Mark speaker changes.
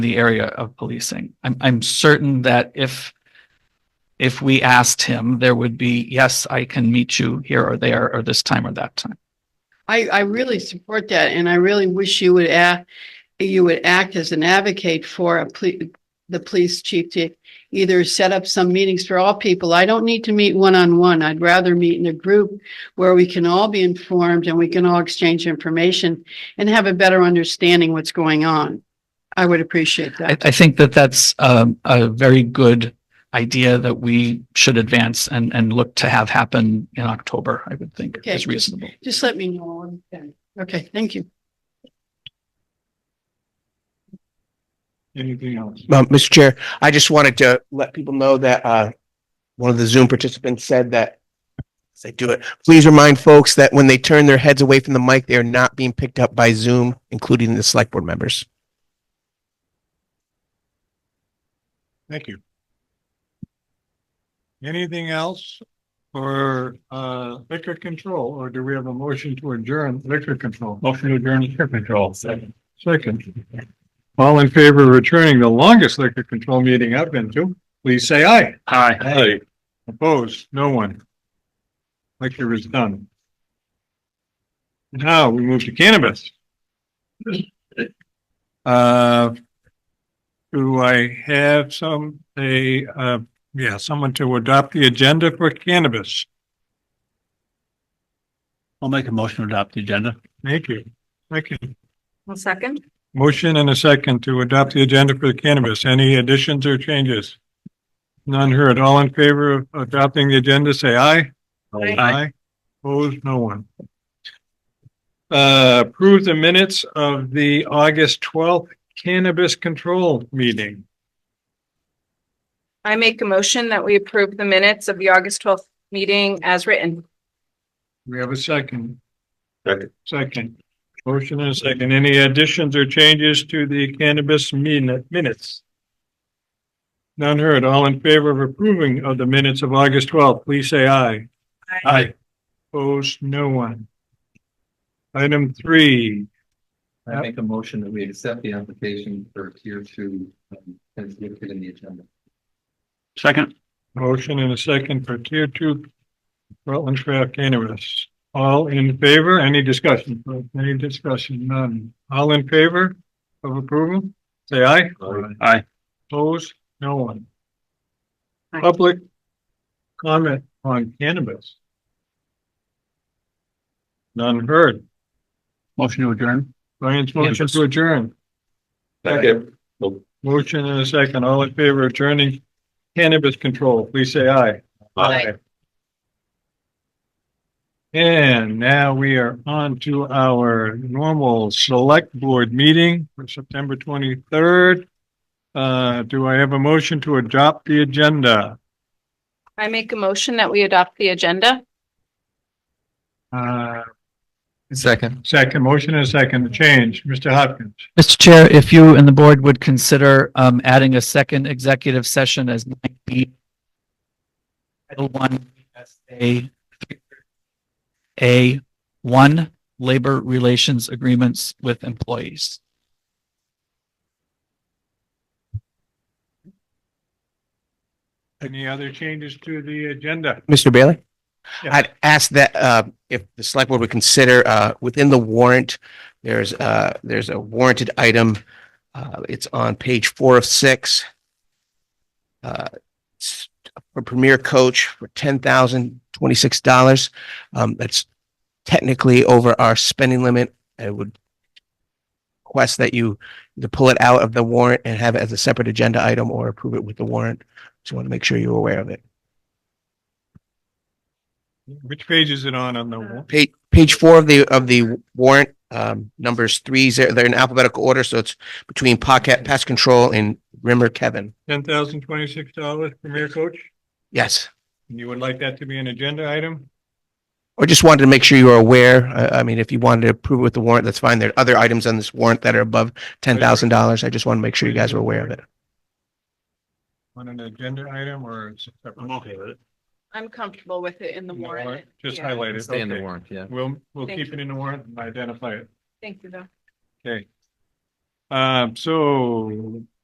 Speaker 1: the area of policing. I'm, I'm certain that if, if we asked him, there would be, yes, I can meet you here or there or this time or that time.
Speaker 2: I, I really support that and I really wish you would act, you would act as an advocate for a ple- the police chief to either set up some meetings for all people. I don't need to meet one-on-one. I'd rather meet in a group where we can all be informed and we can all exchange information and have a better understanding what's going on. I would appreciate
Speaker 1: I,
Speaker 2: that.
Speaker 1: I think that that's um, a very good idea that we should advance and, and look to have happen in October, I would think
Speaker 2: Okay.
Speaker 1: is reasonable.
Speaker 2: Just let me know. when- Okay, thank you.
Speaker 3: Anything else?
Speaker 4: Um, Mr. Chair, I just wanted to let people know that, uh, one of the Zoom participants said that as they do it, please remind folks that when they turn their heads away from the mic, they are not being picked up by Zoom, including the select board members.
Speaker 3: Thank you. Anything else for uh liquor control, or do we have a motion to adjourn liquor control? Motion to adjourn liquor control. Second. All in favor of returning the longest liquor control meeting I've been to, please say aye. Aye. Aye. Opposed, no one. Liquor is done. Now we move to cannabis. Uh, do I have some, a, uh, yeah, someone to adopt the agenda for cannabis?
Speaker 5: I'll make a motion to adopt the agenda.
Speaker 3: Thank you. Second,
Speaker 6: One second.
Speaker 3: motion and a second to adopt the agenda for cannabis. Any additions or changes? None heard. All in favor of adopting the agenda, say aye.
Speaker 6: Aye.
Speaker 3: Opposed, no one. Uh, approve the minutes of the August twelfth cannabis control meeting.
Speaker 6: I make a motion that we approve the minutes of the August twelfth meeting as written.
Speaker 3: We have a second. Second. Second. Motion and a second. Any additions or changes to the cannabis min- minutes? None heard. All in favor of approving of the minutes of August twelfth, please say aye. Aye. Opposed, no one. Item three,
Speaker 7: I make a motion that we accept the application for tier two, um, as listed in the agenda.
Speaker 5: Second,
Speaker 3: motion and a second for tier two Rutland Craft Cannabis. All in favor? Any discussion? Any discussion? None. All in favor of approval? Say aye.
Speaker 5: aye.
Speaker 3: Opposed? No one.
Speaker 6: Aye.
Speaker 3: Public comment on cannabis. None heard.
Speaker 5: Motion to adjourn.
Speaker 3: Brian's motion to adjourn.
Speaker 7: Second.
Speaker 3: Motion and a second. All in favor of adjourning cannabis control, please say aye.
Speaker 6: Aye.
Speaker 3: And now we are on to our normal select board meeting for September twenty-third. Uh, do I have a motion to adopt the agenda?
Speaker 6: I make a motion that we adopt the agenda.
Speaker 3: Uh,
Speaker 7: Second.
Speaker 3: Second, motion and a second to change. Mr. Hopkins,
Speaker 1: Mr. Chair, if you and the board would consider um, adding a second executive session as might be Title one, A, A, one, labor relations agreements with employees.
Speaker 3: any other changes to the agenda?
Speaker 4: Mr. Bailey?
Speaker 3: Yeah.
Speaker 4: I'd ask that, uh, if the select board would consider, uh, within the warrant, there's, uh, there's a warranted item. Uh, it's on page four of six. Uh, it's for Premier Coach for ten thousand twenty-six dollars. Um, that's technically over our spending limit. I would request that you to pull it out of the warrant and have it as a separate agenda item or approve it with the warrant. Just want to make sure you're aware of it.
Speaker 3: Which page is it on on the wall?
Speaker 4: page, page four of the, of the warrant, um, numbers three, they're, they're in alphabetical order, so it's between pocket, pest control and Rimmer Kevin.
Speaker 3: Ten thousand twenty-six dollars Premier Coach?
Speaker 4: Yes.
Speaker 3: And you would like that to be an agenda item?
Speaker 4: Or just wanted to make sure you are aware. I, I mean, if you wanted to approve it with the warrant, that's fine. There are other items on this warrant that are above ten thousand dollars. I just want to make sure you guys are aware of it.
Speaker 3: On an agenda item or? it's separate?
Speaker 5: with it.
Speaker 6: I'm comfortable with it in the
Speaker 3: In the
Speaker 6: warrant.
Speaker 3: warrant? Just
Speaker 6: Yeah.
Speaker 3: highlight it.
Speaker 7: Stay in the
Speaker 3: Okay.
Speaker 7: warrant, yeah.
Speaker 3: We'll, we'll
Speaker 6: Thank
Speaker 3: keep it in the warrant and identify it.
Speaker 6: Thank you, though.
Speaker 3: Okay. Uh, Um, so